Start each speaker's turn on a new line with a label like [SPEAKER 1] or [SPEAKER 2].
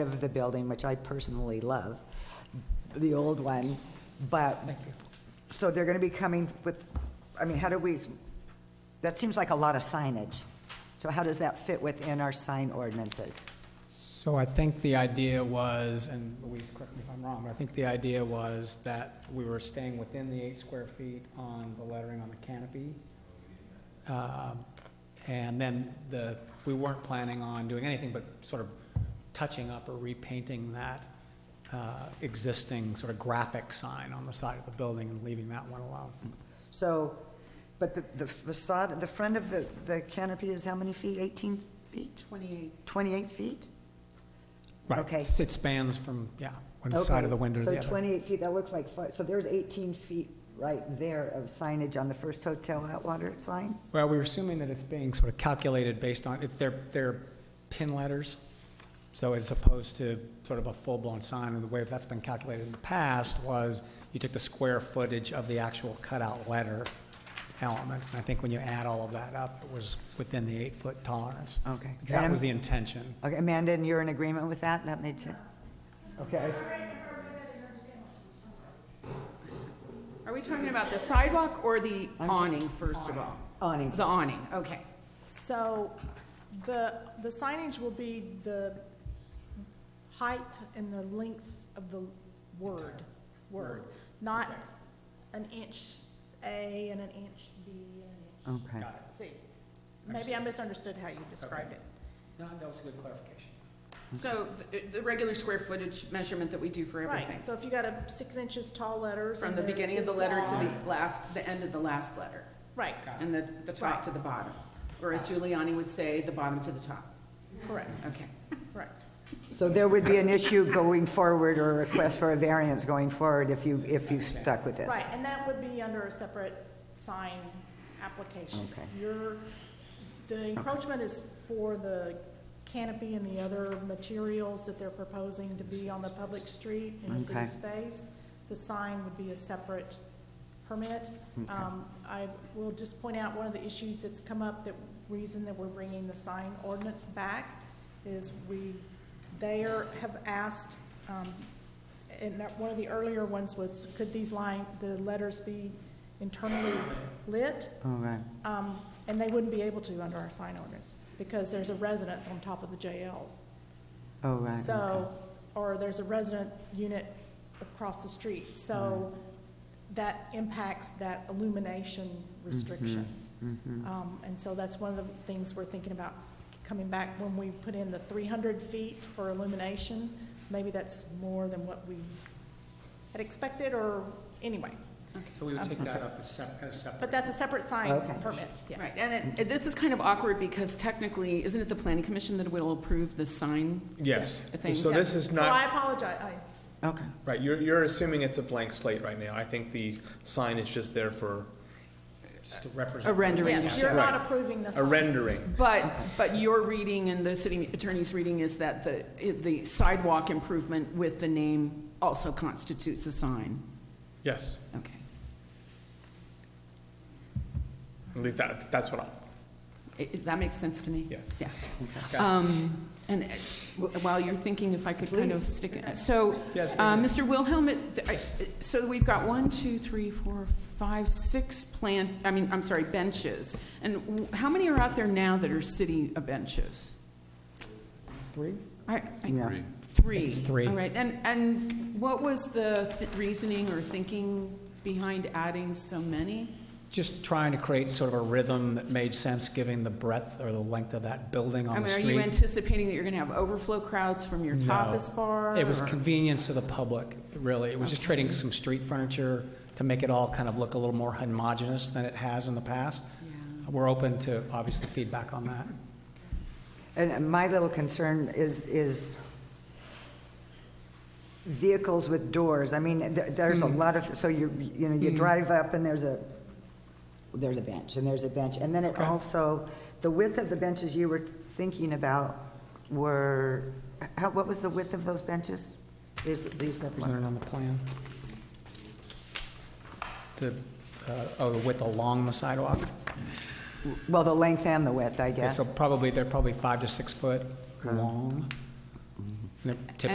[SPEAKER 1] of the building, which I personally love, the old one, but, so they're going to be coming with, I mean, how do we, that seems like a lot of signage. So how does that fit within our sign ordinances?
[SPEAKER 2] So I think the idea was, and Louise, correct me if I'm wrong, but I think the idea was that we were staying within the eight square feet on the lettering on the canopy. Um, And then the, we weren't planning on doing anything but sort of touching up or repainting that uh, existing sort of graphic sign on the side of the building and leaving that one alone.
[SPEAKER 1] So, but the the facade, the front of the, the canopy is how many feet? 18 feet?
[SPEAKER 3] 28.
[SPEAKER 1] 28 feet?
[SPEAKER 2] Right.
[SPEAKER 1] Okay.
[SPEAKER 2] It spans from, yeah, one side of the
[SPEAKER 1] Okay,
[SPEAKER 2] window to the other.
[SPEAKER 1] So 28 feet, that looks like, fi- so there's 18 feet right there of signage on the first hotel Atwater sign?
[SPEAKER 2] Well, we were assuming that it's being sort of calculated based on, if they're, they're pin letters, so as opposed to sort of a full-blown sign, and the way that's been calculated in the past was you took the square footage of the actual cutout letter element, and I think when you add all of that up, it was within the eight-foot tolerance.
[SPEAKER 1] Okay.
[SPEAKER 2] That was the intention.
[SPEAKER 1] Okay, Amanda, and you're in agreement with that? That made sense? Okay.
[SPEAKER 3] Are we talking about the sidewalk or the awning, first of all?
[SPEAKER 1] Awning.
[SPEAKER 3] The awning, okay.
[SPEAKER 4] So the, the signage will be the height and the length of the word, word, not an inch A and an inch B and an
[SPEAKER 1] Okay.
[SPEAKER 4] inch C. Maybe I misunderstood how you described it.
[SPEAKER 2] No, that was a good clarification.
[SPEAKER 3] So th- the regular square footage measurement that we do for everything,
[SPEAKER 4] Right, so if you got a six inches tall letters.
[SPEAKER 3] from
[SPEAKER 4] and
[SPEAKER 3] the
[SPEAKER 4] they're
[SPEAKER 3] beginning of the
[SPEAKER 4] this
[SPEAKER 3] letter to
[SPEAKER 4] long-
[SPEAKER 3] the last, the end of the last letter,
[SPEAKER 4] Right,
[SPEAKER 3] and the, the top to the bottom. Or as Giuliani would say, the bottom to the top.
[SPEAKER 4] correct,
[SPEAKER 3] Okay.
[SPEAKER 4] correct.
[SPEAKER 1] So there would be an issue going forward or a request for a variance going forward if you, if you stuck with this?
[SPEAKER 4] Right, and that would be under a separate sign application.
[SPEAKER 1] Okay.
[SPEAKER 4] Your, the encroachment is for the canopy and the other materials that they're proposing to be on the public street in the
[SPEAKER 1] Okay.
[SPEAKER 4] city space. The sign would be a separate permit. Um, I will just point out, one of the issues that's come up, the reason that we're bringing the sign ordinance back is we, they are, have asked, um, and that one of the earlier ones was, could these line, the letters be internally lit?
[SPEAKER 1] All right.
[SPEAKER 4] Um, and they wouldn't be able to under our sign ordinance, because there's a residence on top of the JLs.
[SPEAKER 1] All right. okay.
[SPEAKER 4] So, or there's a resident unit across the street, so that impacts that illumination
[SPEAKER 1] Mm-hmm.
[SPEAKER 4] restrictions. Um, and so that's one of the things we're thinking about coming back, when we put in the three hundred feet for illumination, maybe that's more than what we had expected, or, anyway.
[SPEAKER 2] So we would take that up as sep- as separate.
[SPEAKER 4] But that's a separate sign
[SPEAKER 1] Okay.
[SPEAKER 4] permit, yes.
[SPEAKER 3] Right, and it- it, this is kind of awkward because technically, isn't it the planning commission that will approve the sign?
[SPEAKER 5] Yes,
[SPEAKER 3] Thing.
[SPEAKER 5] so this is
[SPEAKER 4] So I
[SPEAKER 5] not,
[SPEAKER 4] apologize, I,
[SPEAKER 1] Okay.
[SPEAKER 5] right, you're, you're assuming it's a blank slate right now. I think the sign is just there for
[SPEAKER 2] Just to represent.
[SPEAKER 3] A rendering.
[SPEAKER 4] yes, you're
[SPEAKER 5] Right.
[SPEAKER 4] not approving the sign.
[SPEAKER 5] a rendering.
[SPEAKER 3] But, but your reading and the city attorney's reading is that the, the sidewalk improvement with the name also constitutes a sign.
[SPEAKER 5] Yes,
[SPEAKER 3] Okay.
[SPEAKER 5] at least that, that's what I,
[SPEAKER 3] I- I- That makes sense to me?
[SPEAKER 5] Yes.
[SPEAKER 3] Yeah. Um, And uh, w- while you're thinking, if I could kind of stick, it- so,
[SPEAKER 5] Yes,
[SPEAKER 3] uh, Mr. Wilhelm, it- th- I- so we've got one, two, three, four, five, six plant, I mean, I'm sorry, benches. And w- how many are out there now that are city uh, benches?
[SPEAKER 2] Three?
[SPEAKER 3] I- I-
[SPEAKER 1] Yeah.
[SPEAKER 3] Three.
[SPEAKER 2] It's three.
[SPEAKER 3] All right, and, and what was the th- reasoning or thinking behind adding so many?
[SPEAKER 2] Just trying to create sort of a rhythm that made sense, given the breadth or the length of that building
[SPEAKER 3] I
[SPEAKER 2] on the
[SPEAKER 3] mean, Are you
[SPEAKER 2] street.
[SPEAKER 3] anticipating that you're going to have overflow crowds from your
[SPEAKER 2] No.
[SPEAKER 3] tapas bar?
[SPEAKER 2] It was
[SPEAKER 3] or-
[SPEAKER 2] convenience to the public, really. It was just trading some street furniture to make it all kind of look a little more homogeneous than it has in the past.
[SPEAKER 3] Yeah.
[SPEAKER 2] We're open to, obviously, feedback on that.
[SPEAKER 1] And my little concern is, is vehicles with doors. I mean, there- there's a lot of, so you, you know, you drive up and there's a, there's a bench, and there's a bench. And then it
[SPEAKER 2] Okay.
[SPEAKER 1] also, the width of the benches you were thinking about were, how, what was the width of those benches? Is, is that one?
[SPEAKER 2] Presented on the plan. The, uh, oh, the width along the sidewalk?
[SPEAKER 1] Well, the length and the width, I guess.
[SPEAKER 3] Uh-huh.
[SPEAKER 2] So probably, they're probably five to six foot long. And they're typically